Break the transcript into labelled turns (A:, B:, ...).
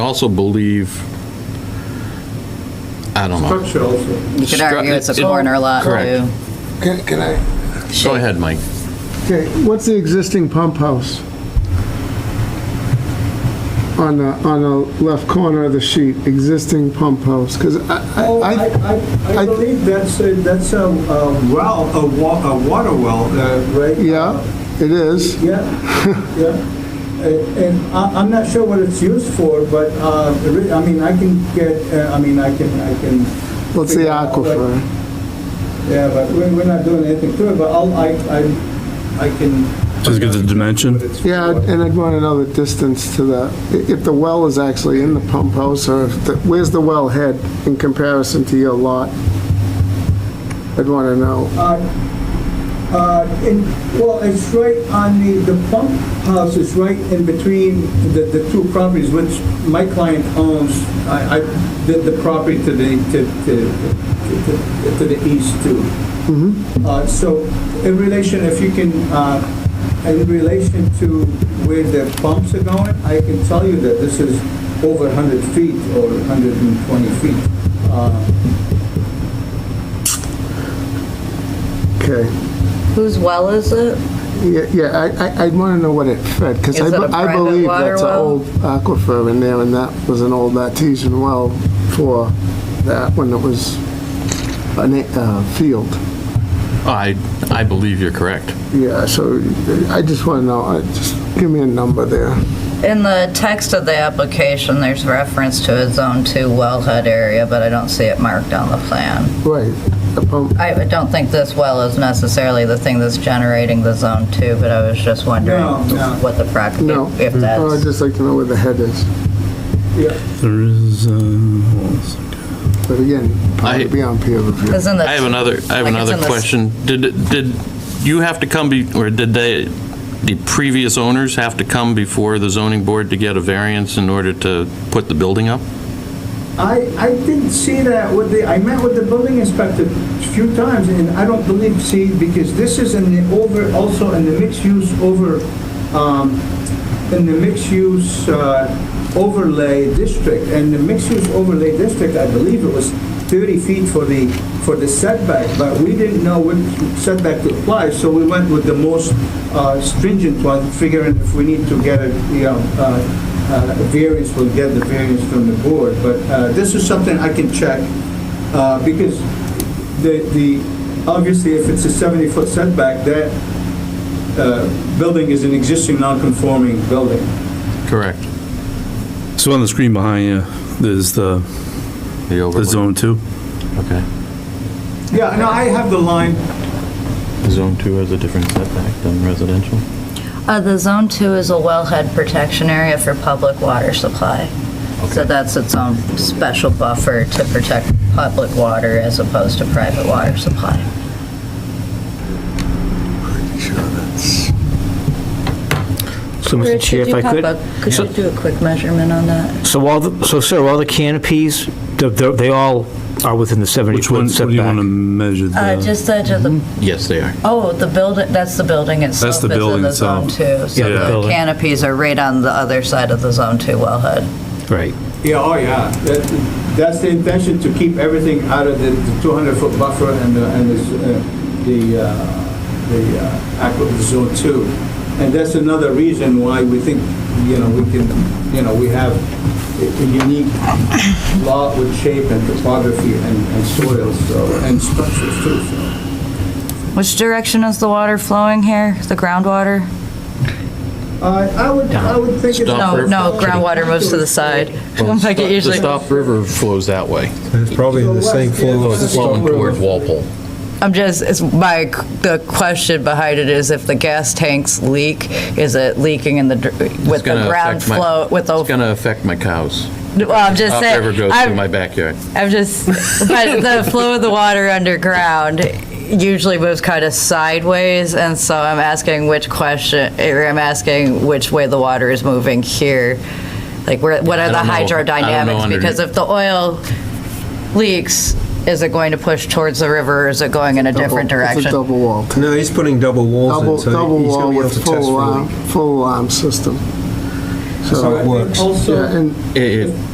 A: also believe, I don't know.
B: Structure also.
C: You could
A: Stru-
C: argue it's a
A: it-
C: corner lot,
A: Correct.
C: too.
D: Can can I?
A: Go ahead, Mike.
B: Okay, what's the existing pump house? On the, on the left corner of the sheet, existing pump house, because I,
E: Oh,
B: I-
E: I,
B: I,
E: I, I believe that's, a- that's a uh, well, a wa, a water well, uh, right?
B: yeah, it is.
E: Yeah, yeah. Uh, And I, I'm not sure what it's used for, but, uh, re- I mean, I can get, uh, I mean, I can, I can.
B: What's the
E: figure out, but-
B: aquifer?
E: Yeah, but we're, we're not doing anything to it, but I'll, I, I, I can.
F: Just get the dimension.
E: What it's for.
B: Yeah, and I'd want to know the distance to the, i- if the well is actually in the pump house, or if the- where's the well head in comparison to your lot? I'd want to know.
E: Uh, uh, in- Well, it's right on the, the pump house is right in between the, the two properties, which my client owns. I, I did the property to the, to, to, to- to the east too. Uh, So in relation, if you can, uh, in relation to where the pumps are going, I can tell you that this is over 100 feet or 120 feet. Uh,
B: Okay.
C: Whose well is it?
B: Yeah, yeah, I- I, I'd want to know what it fed, because I
C: Is it a
B: be- I
C: private
B: believe
C: water
B: that's an
C: well?
B: old aquifer in there, and that was an old artesian well for that, when it was a na- uh, field.
A: Oh, I, I believe you're correct.
B: Yeah, so I just want to know, uh, just give me a number there.
C: In the text of the application, there's reference to a Zone 2 wellhead area, but I don't see it marked on the plan.
B: Right, the pump,
C: I don't think this well is necessarily the thing that's generating the Zone 2, but I was just wondering
E: No, no.
C: what the practice,
B: no.
C: if
B: Oh, I'd
C: that's,
B: just like to know where the head is,
E: Yeah.
F: There is, uh, hold on a second.
B: but again,
A: I-
B: probably beyond peer review.
C: isn't that?
A: I have another, I have
C: Like it's
A: another
C: in this-
A: question. Did, did you have to come, be- or did they, the previous owners have to come before the zoning board to get a variance in order to put the building up?
E: I, I didn't see that with the, I met with the building inspector a few times, and I don't believe, see, because this is in the over, also in the mixed-use over, um, in the mixed-use uh, overlay district, and the mixed-use overlay district, I believe it was 30 feet for the, for the setback, but we didn't know what setback to apply, so we went with the most uh, stringent one, figuring if we need to get a, you know, uh, uh, variance, we'll get the variance from the board, but uh, this is something I can check, uh, because the, the, obviously, if it's a 70-foot setback, that uh, building is an existing non-conforming building.
A: Correct.
F: So on the screen behind you, there's the,
A: The
F: the
A: overlay,
F: zone two.
A: okay.
E: Yeah, no, I have the line,
A: Zone 2 has a different setback than residential?
C: Uh, the Zone 2 is a wellhead protection area for public water supply. So that's its own special buffer to protect public water as opposed to private water supply.
G: So, Mr. Chair, if I could,
C: Could you do a quick measurement on that?
G: so all, the so sir, all the canopies, they're- they're- they all are within the
F: Which
G: 70-foot
F: one, what do you want to
G: setback?
F: measure?
C: Uh,
F: the-
C: just edge of
G: Mm-hmm.
C: the,
A: Yes, they are.
C: oh, the building, that's the building itself.
F: the
C: is in
F: building
C: Zone
F: itself.
C: 2.
G: Yeah,
F: the
C: So the
G: building.
C: canopies are right on the other side of the Zone 2 wellhead.
G: Right.
E: yeah, oh, yeah, that, that's the intention, to keep everything out of the 200-foot buffer and the, and the, uh, the, uh, the uh, aqua, zone two. And that's another reason why we think, you know, we can, you know, we have a a unique lot with shape and topography and and soils, so, and structures too, so.
C: Which direction is the water flowing here? The groundwater?
E: Uh, I would, I would think it's.
A: Stop
C: No,
A: river.
C: no, groundwater moves to the side. Like it
A: The
C: usually.
A: Stop River flows that way.
H: It's probably the same flow as the
A: Flowing
H: Stop
A: toward
H: River.
A: Walpole.
C: I'm just, it's my, the question behind it is if the gas tanks leak, is it leaking in the, dr- with the
A: gonna
C: ground
A: affect my-
C: flow, with
A: It's
C: the,
A: going to affect my cows.
C: well, I'm just
A: Stop
C: saying.
A: River goes
C: I'm-
A: through my backyard.
C: I'm just, but the flow of the water underground usually moves kind of sideways, and so I'm asking which question, or I'm asking which way the water is moving here. Like, where, what
A: I
C: are the
A: don't know. I don't know
C: hydrodynamics?
A: under-
C: Because if the oil leaks, is it going to push towards the river, or is it going in a different
B: Double- It's a
C: direction?
B: double wall.
H: No, he's putting double walls
B: Double,
H: in, so
B: double
H: he's
B: wall
H: going to have
B: with
H: to test
B: full
H: for
B: alarm,
H: leak.
B: full alarm system. So
I: it works.
J: Also.
B: Yeah, and
H: It- it-